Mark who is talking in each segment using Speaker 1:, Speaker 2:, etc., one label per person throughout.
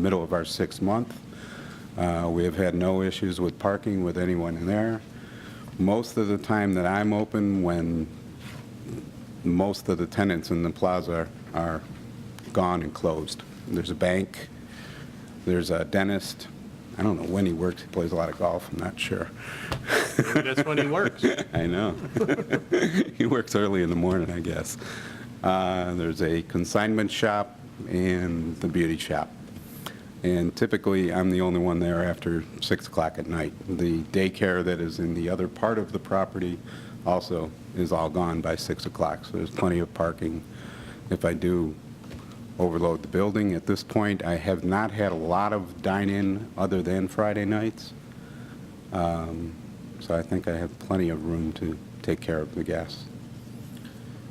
Speaker 1: middle of our sixth month. Uh, We have had no issues with parking with anyone in there. Most of the time that I'm open, when most of the tenants in the plaza are gone and closed. There's a bank, there's a dentist. I don't know when he works, he plays a lot of golf, I'm not sure.
Speaker 2: That's when he works.
Speaker 1: I know. he works early in the morning, I guess. Uh, there's a consignment shop and the beauty shop. And typically, I'm the only one there after 6 o'clock at night. The daycare that is in the other part of the property also is all gone by 6 o'clock, so there's plenty of parking. If I do overload the building at this point, I have not had a lot of dine-in other than Friday nights. So I think I have plenty of room to take care of the guests.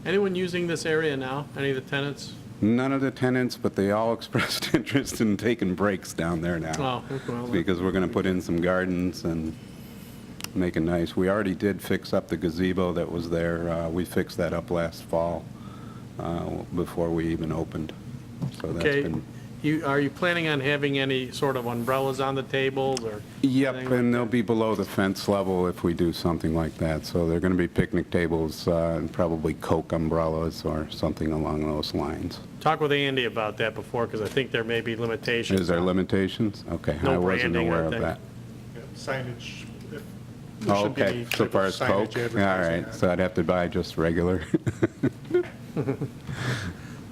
Speaker 2: Anyone using this area now? Any of the tenants?
Speaker 1: None of the tenants, but they all expressed interest in taking breaks down there now.
Speaker 2: Oh, okay, well,
Speaker 1: Because we're going to put in some gardens and make it nice. We already did fix up the gazebo that was there. Uh, We fixed that up last fall uh, before we even opened. So that's
Speaker 2: Okay.
Speaker 1: been.
Speaker 2: You, are you planning on having any sort of umbrellas on the tables or?
Speaker 1: Yep,
Speaker 2: anything?
Speaker 1: and they'll be below the fence level if we do something like that. So they're going to be picnic tables uh, and probably Coke umbrellas or something along those lines.
Speaker 2: Talk with Andy about that before, because I think there may be limitations.
Speaker 1: Is there limitations? Okay,
Speaker 2: No
Speaker 1: I wasn't
Speaker 2: branding, I
Speaker 1: aware of
Speaker 2: think.
Speaker 1: that.
Speaker 3: Yeah, signage. if- there
Speaker 1: Oh,
Speaker 3: should be
Speaker 1: Okay,
Speaker 3: any
Speaker 1: so
Speaker 3: type
Speaker 1: far
Speaker 3: of
Speaker 1: as
Speaker 3: signage
Speaker 1: Coke? All
Speaker 3: advertising
Speaker 1: right,
Speaker 3: that.
Speaker 1: so I'd have to buy just regular.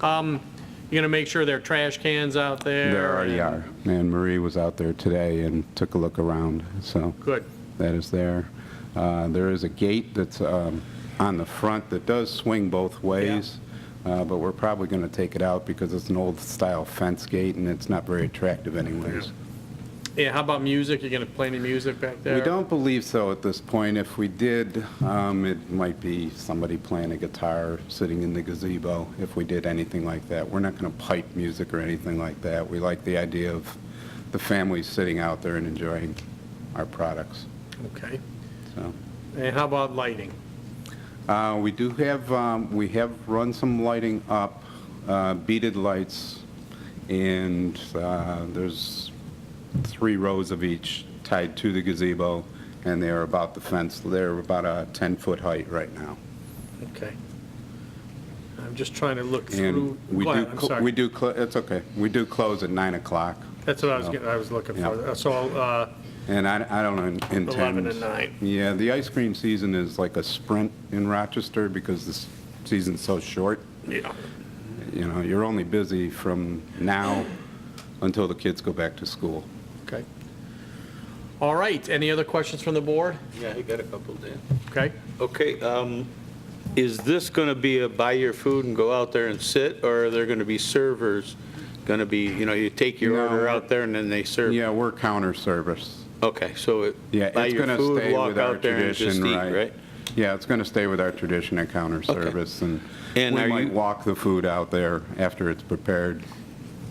Speaker 2: You're going to make sure there are trash cans out there?
Speaker 1: There already
Speaker 2: and-
Speaker 1: are. And Marie was out there today and took a look around, so
Speaker 2: Good.
Speaker 1: that is there. Uh, There is a gate that's um, on the front that does swing both ways, uh, but we're probably going to take it out because it's an old-style fence gate and it's not very attractive anyways.
Speaker 2: Yeah, how about music? You going to play any music back there?
Speaker 1: We don't believe so at this point. If we did, um, it might be somebody playing a guitar, sitting in the gazebo, if we did anything like that. We're not going to pipe music or anything like that. We like the idea of the families sitting out there and enjoying our products,
Speaker 2: Okay.
Speaker 1: so.
Speaker 2: And how about lighting?
Speaker 1: Uh, We do have, um, we have run some lighting up, uh, beaded lights, and uh, there's three rows of each tied to the gazebo, and they are about the fence, they're about a 10-foot height right now.
Speaker 2: Okay. I'm just trying to look
Speaker 1: And
Speaker 2: through.
Speaker 1: we
Speaker 2: Go
Speaker 1: do,
Speaker 2: ahead, I'm
Speaker 1: cl-
Speaker 2: sorry.
Speaker 1: we do, cl- it's okay, we do close at 9 o'clock,
Speaker 2: That's what I was, getting- I was looking
Speaker 1: Yeah.
Speaker 2: for. So, uh,
Speaker 1: and I I don't intend...
Speaker 2: 11 to 9.
Speaker 1: Yeah, the ice cream season is like a sprint in Rochester because the s- season's so short.
Speaker 2: yeah.
Speaker 1: you know, you're only busy from now until the kids go back to school.
Speaker 2: Okay. All right, any other questions from the board?
Speaker 4: Yeah, I got a couple, Dan.
Speaker 2: Okay,
Speaker 4: Okay, um, is this going to be a buy your food and go out there and sit, or are there going to be servers? Going to be, you know, you take your
Speaker 1: No.
Speaker 4: order out there and then they serve?
Speaker 1: Yeah, we're counter service.
Speaker 4: Okay, so it-
Speaker 1: Yeah,
Speaker 4: buy
Speaker 1: it's
Speaker 4: your
Speaker 1: going to
Speaker 4: food,
Speaker 1: stay
Speaker 4: walk
Speaker 1: with our
Speaker 4: out there and just
Speaker 1: tradition,
Speaker 4: eat,
Speaker 1: right?
Speaker 4: right?
Speaker 1: Yeah, it's going to stay with our tradition of counter service, and we
Speaker 4: And are
Speaker 1: might
Speaker 4: you-
Speaker 1: walk the food out there after it's prepared.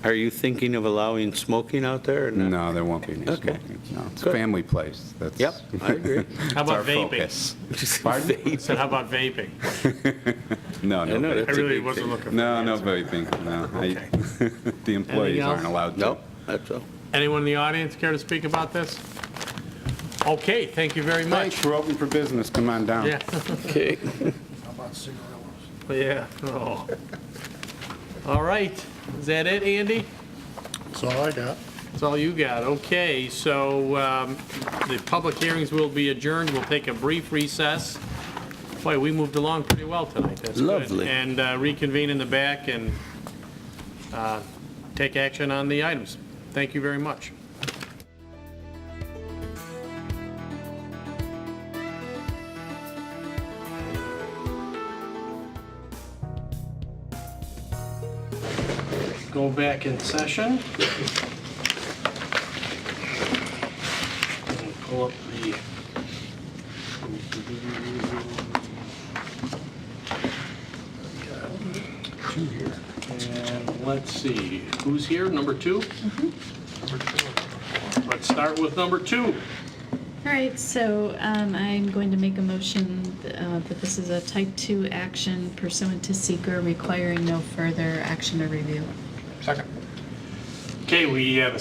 Speaker 4: Are you thinking of allowing smoking out there or not?
Speaker 1: No, there won't be any
Speaker 4: Okay.
Speaker 1: smoking. No, it's a
Speaker 4: Good.
Speaker 1: family place. That's.
Speaker 4: Yep, I agree.
Speaker 2: how
Speaker 1: It's our
Speaker 2: about vaping?
Speaker 1: focus. Pardon?
Speaker 2: I said, how about vaping?
Speaker 1: No,
Speaker 4: I know
Speaker 1: no
Speaker 4: that's
Speaker 2: I
Speaker 4: a
Speaker 1: vaping.
Speaker 2: really
Speaker 4: big
Speaker 2: wasn't
Speaker 4: thing.
Speaker 2: looking for
Speaker 1: No,
Speaker 2: that.
Speaker 1: no vaping, no. I- The
Speaker 2: Anything
Speaker 1: employees
Speaker 2: else?
Speaker 1: aren't allowed to.
Speaker 4: No, that's all.
Speaker 2: Anyone in the audience care to speak about this? Okay, thank you very much.
Speaker 1: Thanks, we're open for business. Come on down.
Speaker 2: Yeah,
Speaker 4: Okay.
Speaker 2: yeah. oh. All right, is that it, Andy?
Speaker 3: That's all I got.
Speaker 2: That's all you got, okay. So um, the public hearings will be adjourned, we'll take a brief recess. Boy, we moved along pretty well tonight, that's good.
Speaker 4: Lovely.
Speaker 2: And uh, reconvene in the back and uh, take action on the items. Thank you very much. Go back in session. and pull up the. And let's see, who's here, number two? Let's start with number two.
Speaker 5: All right, so um, I'm going to make a motion uh, that this is a type-two action pursuant to seeker requiring no further action or review.
Speaker 2: Okay,
Speaker 3: Okay, we have a